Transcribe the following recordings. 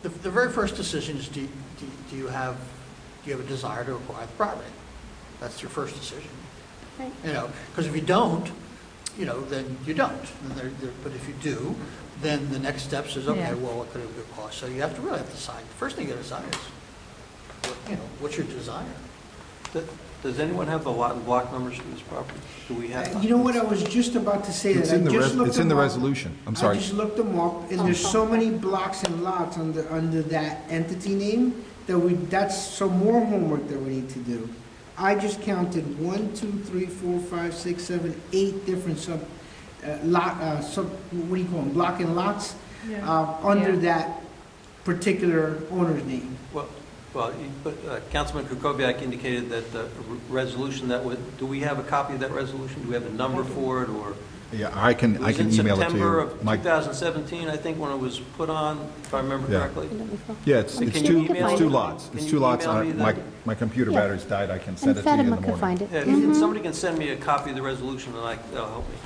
the, the very first decision is, do, do do you have, do you have a desire to acquire the property? That's your first decision, Right. you know, because if you don't, you know, then you don't. And there, there, but if you do, then the next steps is, Yeah. okay, well, what could it have cost? So you have to really have to decide, the first thing you gotta decide is, what, you know, what's your desire? Th- Does anyone have the lot and block numbers for this property? Do we have? You know what, I was just about to say that. It's I in the just res- looked it's in the them up. resolution. I'm sorry. I just looked them up, and there's so many blocks and lots under, under that entity name that we, that's some more homework that we need to do. I just counted one, two, three, four, five, six, seven, eight different sub, uh, lot, uh, sub, what do you call them, block and lots, uh, under Yeah. that particular owner's name. Well, well, you- but uh, Councilman Kukoviac indicated that the re- resolution that would, do we have a copy of that resolution? Do we have a number for it, or? Yeah, I can, I can email it to you. was in September of Mike. 2017, I think, when it was put on, if I remember Yeah. correctly. Yeah, it's, Can it's you two, email it's two it? lots. Can It's you two lots. email I- me that? My, my computer Yeah. battery's died. I can And send it to you in the Fatima can find morning. it. Yeah, Mhm. If somebody can send me a copy of the resolution, and I, that'll help me.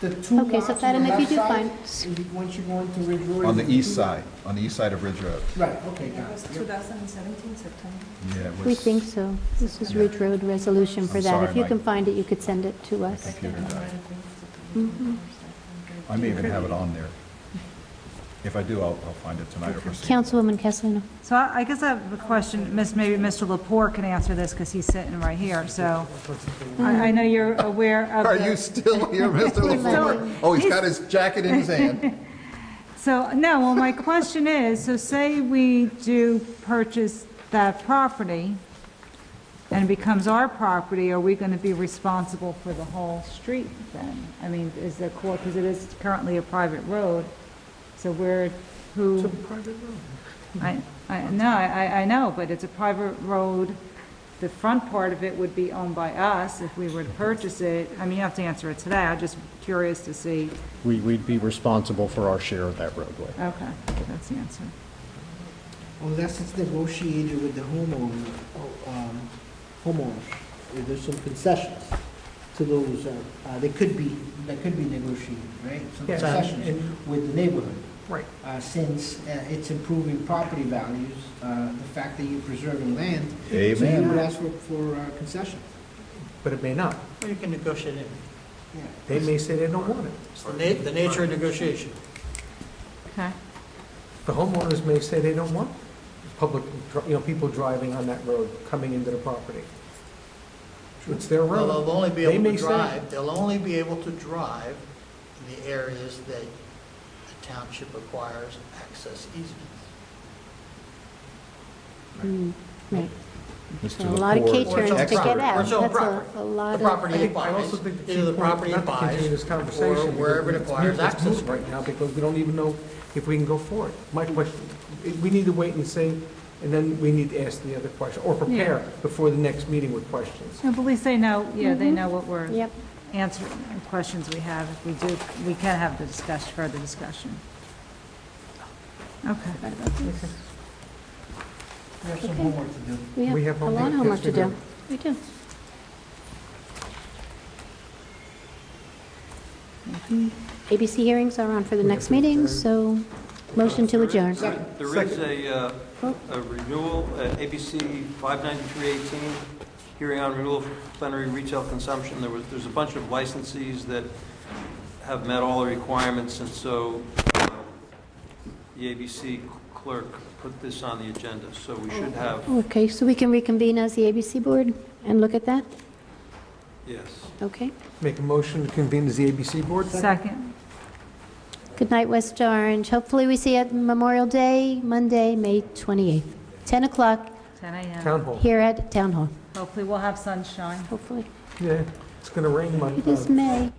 The two Okay, lots so on Fatima, the if you do left side, find- and once you go into Ridge Road. On the it's east two- side, on the east side of Ridge Road. Right, okay, It got was it. 2017 September. Yeah, it We was- think so. This is Ridge Road resolution for I'm that. sorry, If you Mike. can find it, you could send it to us. Computer died. Mm-hmm. I may even have it on there. If I do, I'll, I'll find it tonight or proceed. Councilwoman Castellino. So I I guess I have a question, Miss- maybe Mr. Lepore can answer this, because he's sitting right here, so. I I know you're aware of the... Are you still here, Mr. He's LaFleur? still- Oh, he's got his jacket in his hand. So, no, well, my question is, so say we do purchase that property and it becomes our property, are we going to be responsible for the whole street then? I mean, is the court, because it is currently a private road, so where, who? It's a private road. I, I, no, I, I know, but it's a private road. The front part of it would be owned by us if we were to purchase it. I mean, you have to answer it today, I'm just curious to see. We, we'd be responsible for our share of that roadway. Okay, that's the answer. Unless it's negotiated with Oh, the homeowner, oh, um, homeowners, or there's some concessions to those, uh, uh, they could be, that could be negotiated, right? Some Yes. concessions with the neighborhood. Right. Uh, Since uh, it's improving property values, uh, the fact that you're preserving land, so you would Amen. ask for, for uh, concessions. But it may not. Well, you can negotiate it. Yeah. They may say they don't want it. It's the na, the nature of negotiation. Okay. The homeowners may say they don't want public, you know, people driving on that road, coming into the property. It's their Well, they'll road. only be They able to may say- drive, they'll only be able to drive in the areas that the township acquires access easements. Mm, Right. Mr. A lot of LaFleur, K-turns to expert. get Or out. it's That's own a property. a lot The of... property I it think- I buys, also think the either the key point, property it not to buys, continue this or conversation. wherever it because it's acquires moot- it's moot access. Right now, because we don't even know if we can go forward. My question, we need to wait and see, and then we need to ask the other question, or prepare before the next meeting with questions. No, but at least they know, yeah, they know what we're Yep. answering, and questions we have. If we do, we can have the discussion, further discussion. Okay. We have some Okay. homework to do. We We have have a lot of homework homework. Yes, to we do. do. We do. ABC hearings are on for the next meeting, so motion to adjourn. Oh. There is- There is a, uh, a renewal, uh, ABC 59318, hearing on renewal for plenary retail consumption. There was, there's a bunch of licensees that have met all the requirements, and so uh, the ABC clerk put this on the agenda, so we should Oh. have, Okay, so we can reconvene as the ABC Board and look at that? yes. Okay. Make a motion to convene as the ABC board? Second. Good night, West Orange. Hopefully, we see you at Memorial Day, Monday, May 28th, 10 o'clock, 10 a.m. Town hall. here at Town Hall, Hopefully, we'll have sunshine. hopefully. Yeah, it's going to rain uh, Monday. It is May.